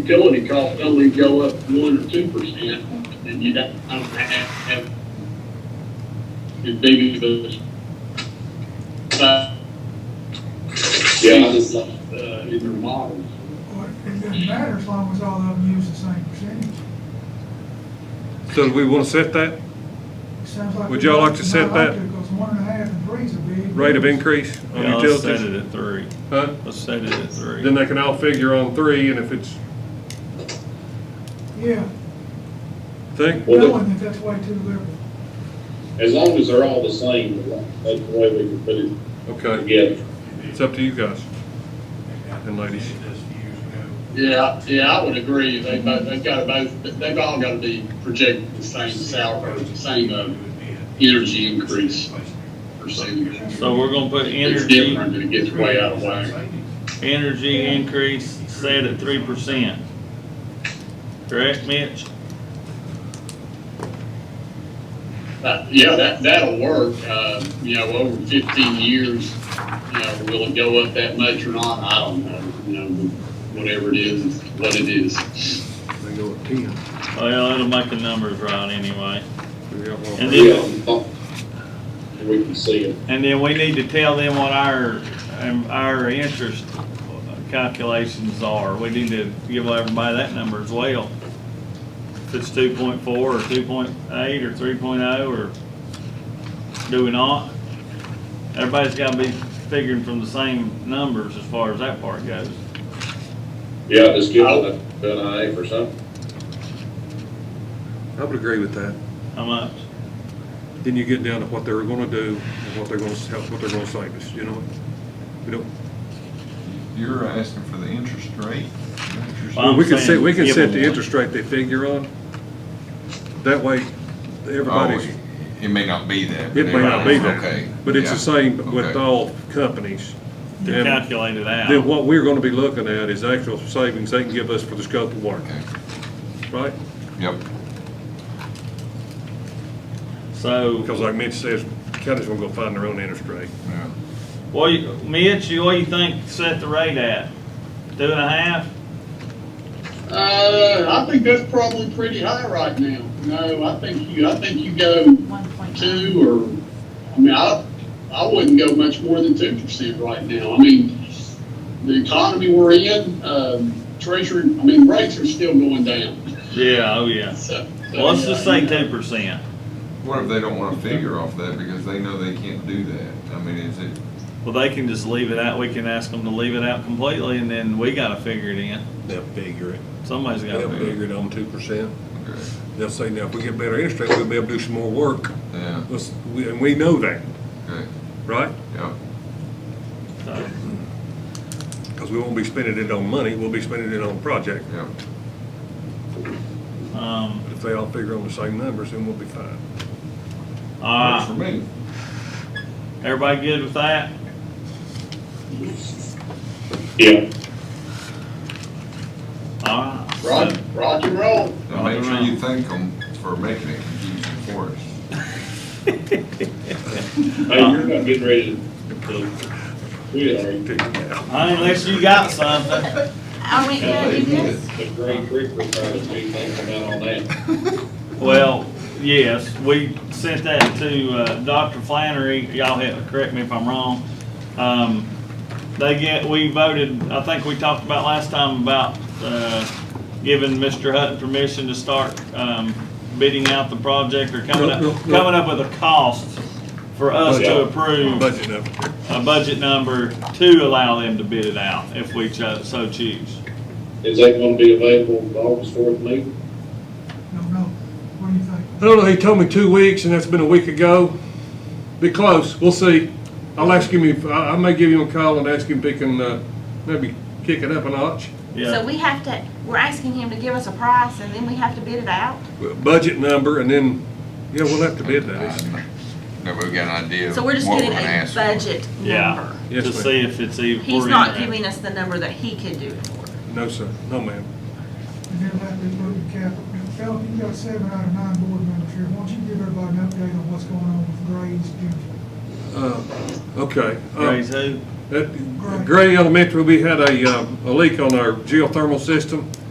utility costs only go up one or two percent, then you don't, I don't have, have as big of a. but- Yeah. Uh, in their models. Well, it doesn't matter as long as all of them use the same percentage. So do we want to set that It sounds like. Would y'all like to set that? Because one and a half and three's a big. rate of increase on Yeah, let's set utilities? it at three. Huh? Let's set it at three. Then they can all figure on three, and if it's, Yeah, think, Well, knowing that that's way too liberal. as long as they're all the same, that's the way we can put it okay, together. it's up to you guys and ladies. Yeah, yeah, I would agree. They, both they've got to both, they've all got to be projected the same salary, the same, uh, energy increase percentage. So we're gonna put It's energy, different and it gets way out of whack. energy increase set at three percent. Correct, Mitch? Uh, yeah, that, that'll work. Uh, you know, over fifteen years, you know, will it go up that much or not? I don't know. You know, whatever it is, is what it is. They go at ten. Well, it'll make the numbers right anyway. And Yeah, then, and oh, we can see it. and then we need to tell them what our, um, our interest calculations are. We need to give everybody that number as well. If it's two point four or two point eight or three oh or do we not? Everybody's gotta be figuring from the same numbers as far as that part goes. Yeah, just give it a, an eye for something. I would agree with that. How much? Then you get down to what they're gonna do and what they're gonna, how- what they're gonna save us, you know? We don't, You're asking for the interest rate? Oh, Interest- Well, I'm we can saying set, we can give set them the one. interest rate they figure on. That way, everybody's, Oh, it- It may not be that. but it may not be everybody's that, okay. but it's the Yeah. same with Okay. all companies. They're And- calculated out. Then what we're gonna be looking at is actual savings they can give us for the scope of work, Okay. right? Yep, So, Because like Mitch says, counties gonna go find their own interest rate. yeah. what you, Mitch, you- what you think set the rate at? Two and a half? Uh, I think that's probably pretty high right now. No, I think you, I think you go One point two. two or, I mean, I, I wouldn't go much more than two percent right now. I mean, the economy we're in, um, treasury, I mean, rates are still going down. Yeah, oh yeah. So. so, Well, let's just yeah, say you know. two percent. What if they don't want to figure off that because they know they can't do that? I mean, is it, Well, they can just leave it out. We can ask them to leave it out completely and then we gotta figure it in. They'll figure it. Somebody's gotta They'll figure it. figure it on two percent. okay, They'll say, now, if we get better interest rate, we'll be able to do some more work. yeah, Let's- we- And we know that, okay, right? yeah. So, Because we won't be spending it on money, we'll be spending it on project. yeah. Um, But if they all figure on the same numbers, then we'll be fine. Ah. all Works for right, me. everybody good with that? Yeah. All right. so- Rock, rock and roll. Now make sure you thank them for making it confusing for us. Hey, you're not getting ready to, to, we are Hey, Unless you got something. Are we gonna do this? the great creek we're trying to be thinking about all that. Well, yes, we sent that to uh, Dr. Flannery, y'all have, correct me if I'm wrong. Um, They get, we voted, I think we talked about last time about uh, giving Mr. Hutton permission to start um, bidding out the project or coming No, up, no, no. coming up with a cost for us to Budget. approve Budget up. a budget number to allow them to bid it out if we cho- so choose. Is that gonna be available August fourth meeting? Don't know. What do you think? I don't know, he told me two weeks, and that's been a week ago. Be close, we'll see. I'll ask him, if I I may give him a call and ask him if he can uh, maybe kick it up a notch. Yeah. So we have to, we're asking him to give us a price and then we have to bid it out? Budget number, and then, yeah, we'll have to bid that. No, we've got an idea. So we're just what getting gonna a ask for. budget Yeah. number. Yes, To ma'am. see if it's even. He's not giving us the number that he could do it for. No, sir, no, ma'am. And then let me move the capital. Now, Phil, you've got seven out of nine board members here. Why don't you give everybody an update on what's going on with grades, Jim? Uh, Okay. uh, Raise who? uh, At Gray Elementary, we had a, um, a leak on our geothermal system.